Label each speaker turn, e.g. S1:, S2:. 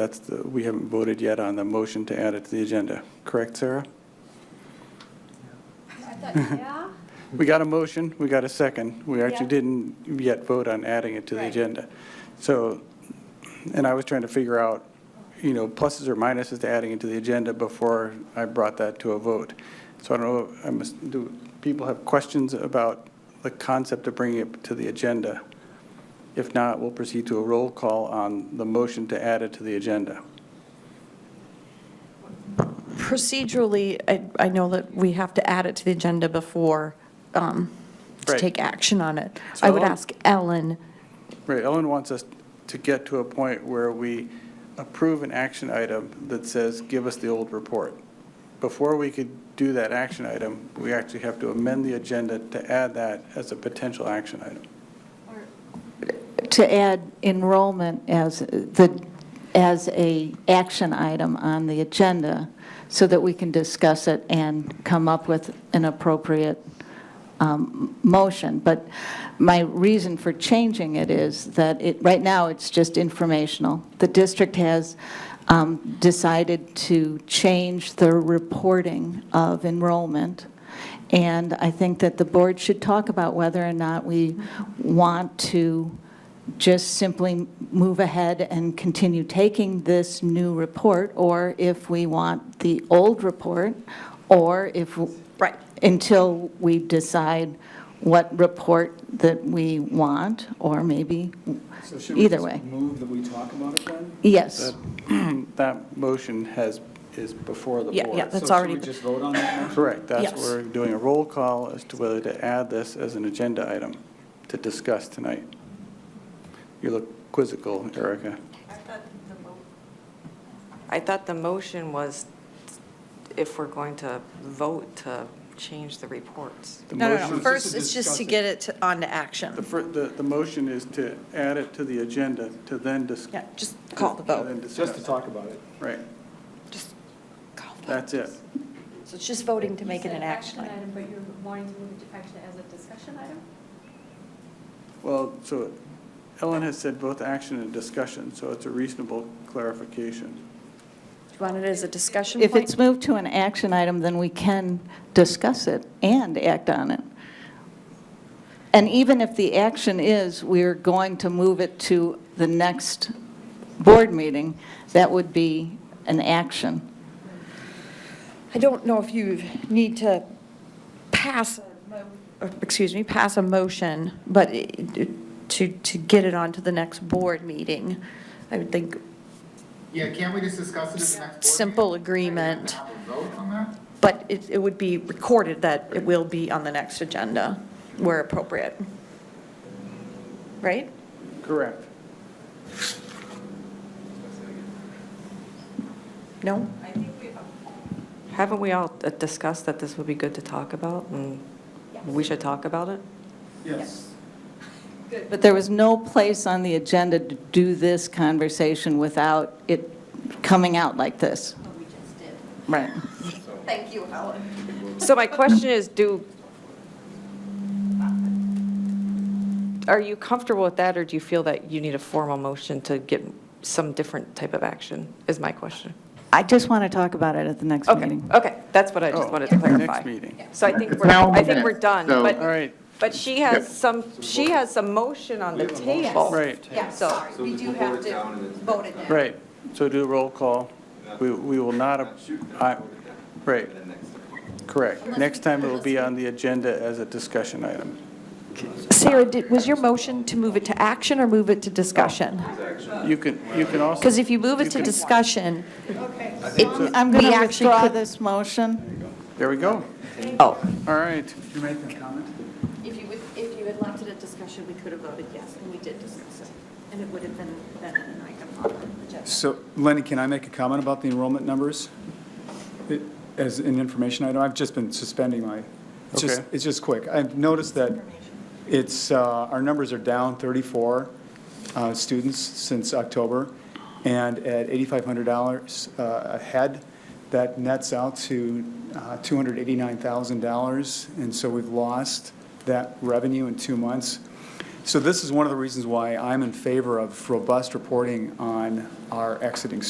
S1: That's the, we haven't voted yet on the motion to add it to the agenda, correct, Sarah?
S2: I thought, yeah?
S1: We got a motion, we got a second. We actually
S2: Yeah.
S1: didn't yet vote on adding it to the
S2: Right.
S1: agenda. So, and I was trying to figure out, you know, pluses or minuses to adding it to the agenda before I brought that to a vote. So I don't know, I must, do people have questions about the concept of bringing it to the agenda? If not, we'll proceed to a roll call on the motion to add it to the agenda.
S3: Procedurally, I, I know that we have to add it to the agenda before, um, to
S1: Right.
S3: take action on it. I would
S1: So-
S3: ask Ellen,
S1: Right, Ellen wants us to get to a point where we approve an action item that says, give us the old report. Before we could do that action item, we actually have to amend the agenda to add that as a potential action item.
S2: Or-
S4: to add enrollment as the, as a action item on the agenda so that we can discuss it and come up with an appropriate um, motion. But my reason for changing it is that it, right now, it's just informational. The district has um, decided to change the reporting of enrollment. And I think that the board should talk about whether or not we want to just simply move ahead and continue taking this new report, or if we want the old report, or if.
S3: Right.
S4: Until we decide what report that we want, or maybe,
S5: So should we
S4: either
S5: just
S4: way.
S5: move that we talk about it then?
S4: Yes,
S1: That motion has, is before the
S3: Yeah,
S1: board.
S3: yeah, that's
S5: So should
S3: already-
S5: we just vote on that now?
S1: Correct, that's,
S3: Yes.
S1: we're doing a roll call as to whether to add this as an agenda item to discuss tonight. You look quizzical, Erica.
S6: I thought the motion was if we're going to vote to change the reports.
S1: The
S3: no, no,
S1: motion-
S3: no,
S5: Motion.
S3: first, it's just to get it to- onto
S1: The,
S3: action.
S1: fir- the, the motion is to add it to the agenda to then dis-
S3: Yeah, just call the
S1: to- to
S3: vote.
S1: then
S5: Just to
S1: discuss.
S5: talk about it.
S1: Right,
S3: Just call the vote.
S1: that's it.
S3: So it's just voting to
S2: You
S3: make it
S2: said
S3: an action item.
S2: But you're wanting to move it to action as a discussion item?
S1: Well, so Ellen has said both action and discussion, so it's a reasonable clarification.
S3: Do you want it as a discussion
S4: if
S3: point?
S4: it's moved to an action item, then we can discuss it and act on it. And even if the action is, we're going to move it to the next board meeting, that would be an action.
S3: I don't know if you need to pass, a mo- or, excuse me, pass a motion, but i- to, to get it onto the next board meeting, I would think
S7: Yeah, can't we just discuss it at the next board meeting?
S3: simple agreement,
S7: Have a vote on that?
S3: but it, it would be recorded that it will be on the next agenda where appropriate. Right?
S1: Correct.
S3: No?
S6: Haven't we all discussed that this would be good to talk about and we should talk about it?
S5: Yes.
S4: But there was no place on the agenda to do this conversation without it coming out like this.
S2: We just did.
S4: Right.
S2: Thank you, Helen.
S6: So my question is, do, are you comfortable with that or do you feel that you need a formal motion to get some different type of action, is my question?
S4: I just want to talk about it at the next
S6: Okay,
S4: meeting.
S6: okay, that's what I just
S1: Oh,
S6: wanted to clarify.
S1: Next meeting.
S6: So I think
S7: It's
S6: we're,
S7: now
S6: I think we're
S7: minutes,
S6: done,
S7: so-
S6: but.
S1: All right,
S6: But she has some, she has some motion on the table.
S1: right,
S2: Yeah,
S6: So-
S2: sorry, we do have to vote it down.
S1: right. So do a roll call. We, we will not, ab- I, right. Correct. Next time it will be on the agenda as a discussion item.
S3: Sarah, did- was your motion to move it to action or move it to discussion?
S1: You can, you can also.
S3: Because if you move it to discussion,
S4: I'm- Um, I'm going
S3: We
S4: to
S3: actually
S4: withdraw
S3: could-
S4: this motion.
S1: There we go.
S3: oh,
S1: All right.
S5: Did you make that comment?
S2: If you would, if you had left it at discussion, we could have voted yes, and we did discuss it. And it would have been, been an item on the agenda.
S5: So Lenny, can I make a comment about the enrollment numbers? It- As an information item, I've just been suspending my, it's just,
S1: Okay.
S5: it's just quick. I've noticed that it's, uh, our numbers are down 34 uh, students since October, and at $8,500 uh, a head, that nets out to uh, $289,000, and so we've lost that revenue in two months. So this is one of the reasons why I'm in favor of robust reporting on our exiting students.